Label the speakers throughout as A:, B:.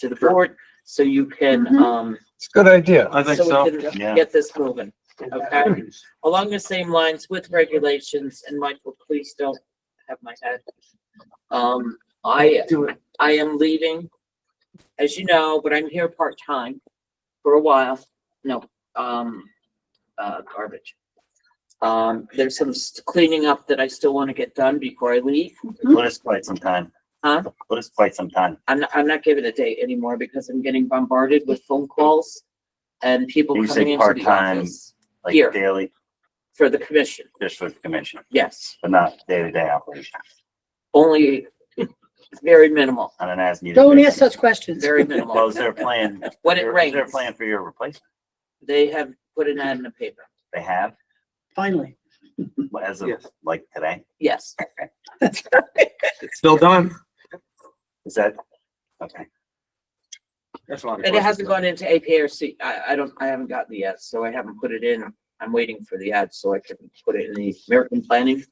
A: to the board so you can,
B: Mhm.
A: um,
C: It's a good idea.
D: I think
A: so
D: so.
A: we can
D: Yeah.
A: get this moving. Okay, along the same lines with regulations, and Michael, please don't have my head. Um, I, I am leaving, as you know, but I'm here part-time for a while. No, um, uh, garbage. Um, there's some s- cleaning up that I still want to get done before I leave.
D: Let us quite some time.
A: Hmm? Huh?
D: Let us quite some time.
A: I'm, not- I'm not giving a date anymore because I'm getting bombarded with phone calls and people
D: You
A: coming
D: say
A: into the
D: part-time.
A: office
D: Like
A: Here.
D: daily,
A: for the commission.
D: just for the commission,
A: Yes,
D: but not day-to-day operation
A: only very minimal,
D: on an as-needed.
B: Don't
D: basis.
B: ask such questions.
A: very
D: Well,
A: minimal.
D: is there a plan?
A: When it
D: Is there a
A: rains,
D: plan for your replacement?
A: they have put an ad in the paper.
D: They have,
B: Finally.
D: as of like today?
A: Yes,
E: It's still done.
D: Is that, okay,
E: That's why.
A: and it hasn't gone into APRC. I, I don't, I haven't gotten the yet, so I haven't put it in. I'm waiting for the ad so I can put it in the American planning,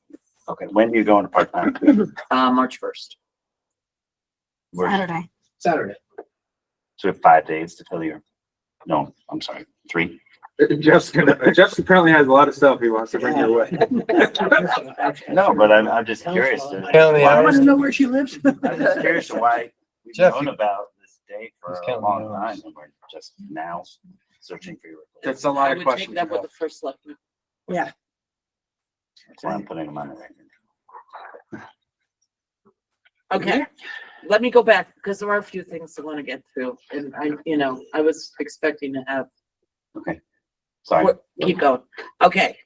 D: okay. When do you go into part-time?
A: uh, March first.
D: We're,
B: Saturday.
F: Saturday.
D: so we have five days to fill your, no, I'm sorry, three.
E: Jeff's gonna, Jeff apparently has a lot of stuff he wants to bring your way.
D: No, but I'm, I'm just curious. to-
C: Count the
D: why-
C: hours.
F: know where she lives.
D: I'm just curious to why we've
C: Jeff,
D: known
C: you-
D: about this date for
C: Just
D: a
C: count the
D: long
C: hours.
D: time and we're just now searching for your.
E: That's a
A: I
E: lot
A: would
E: of
A: take
E: questions.
A: that with the first selectman.
D: That's why I'm putting them on the record.
A: Okay, let me go back because there are a few things I want to get through and I, you know, I was expecting to have
D: Sorry,
A: What- Keep going. Okay,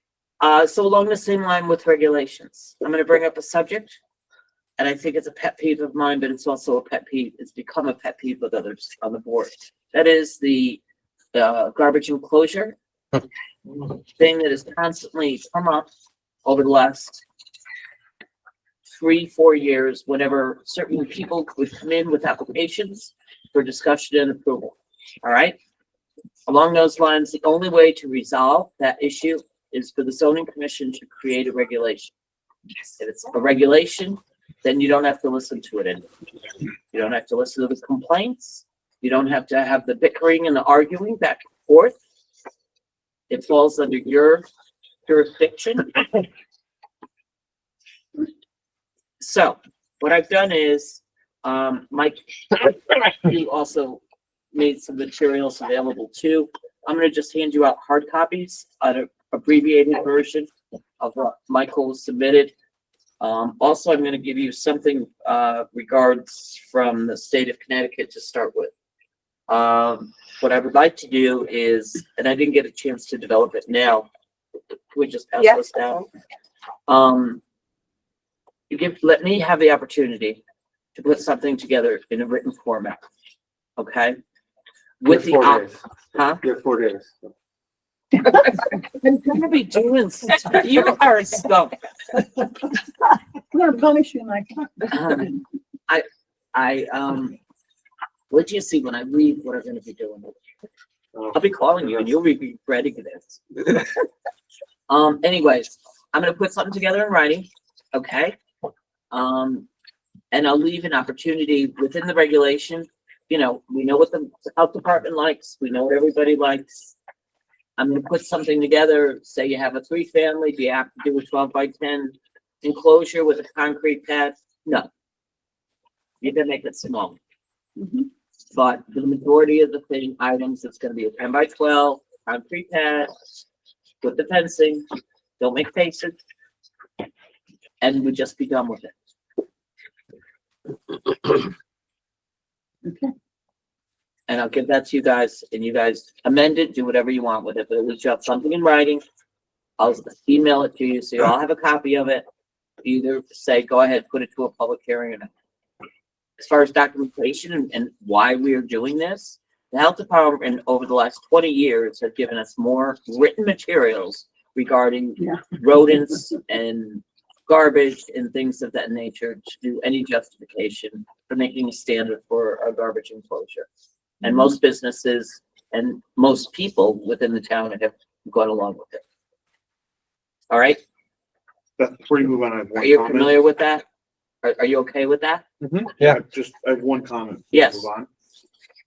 A: uh, so along the same line with regulations, I'm gonna bring up a subject. And I think it's a pet peeve of mine, but it's also a pet peeve, it's become a pet peeve with others on the board. That is the, uh, garbage enclosure. Thing that has constantly come up over the last three, four years, whenever certain people would come in with applications for discussion and approval, all right? Along those lines, the only way to resolve that issue is for the zoning commission to create a regulation. If it's a regulation, then you don't have to listen to it anymore. You don't have to listen to the complaints. You don't have to have the bickering and the arguing back and forth. It falls under your jurisdiction. So what I've done is, um, Mike, you also made some materials available too. I'm gonna just hand you out hard copies, an abbreviated version of what Michael submitted. Um, also, I'm gonna give you something, uh, regards from the state of Connecticut to start with. Um, what I would like to do is, and I didn't get a chance to develop it now, Can we just pass
B: Yeah.
A: this down. Um, you give, let me have the opportunity to put something together in a written format, okay? With the,
E: Four
A: op-
E: days.
A: huh?
E: You have four days.
A: I'm gonna be doing, stuff. you are a stump.
B: I'm gonna punish you, Mike.
A: Um, I, I, um, what do you see when I leave, what I'm gonna be doing?
E: Um,
A: I'll be calling you and you'll be regretting this. Um, anyways, I'm gonna put something together in writing, okay? Um, and I'll leave an opportunity within the regulation. You know, we know what the health department likes, we know what everybody likes. I'm gonna put something together, say you have a three family, do you have to do a twelve by ten enclosure with a concrete pad? No. You're gonna make it small.
B: Mhm.
A: But the majority of the thing, items, it's gonna be a ten by twelve, concrete pad with the fencing, don't make faces. And we just be done with it.
B: Okay.
A: And I'll give that to you guys and you guys amend it, do whatever you want with it, but at least you have something in writing. I'll email it to you, so you all have a copy of it. Either say, go ahead, put it to a public hearing or not. As far as documentation and, and why we are doing this, the health department over the last twenty years have given us more written materials regarding
B: Yeah.
A: rodents and garbage and things of that nature to do any justification for making a standard for a garbage enclosure. And most businesses and most people within the town have gone along with it. All right,
G: Beth, before you move on, I have
A: are
G: one
A: you
G: comment.
A: familiar with that? Are, are you okay with that?
G: I Just, I have one comment. before we
A: Yes.
G: move on.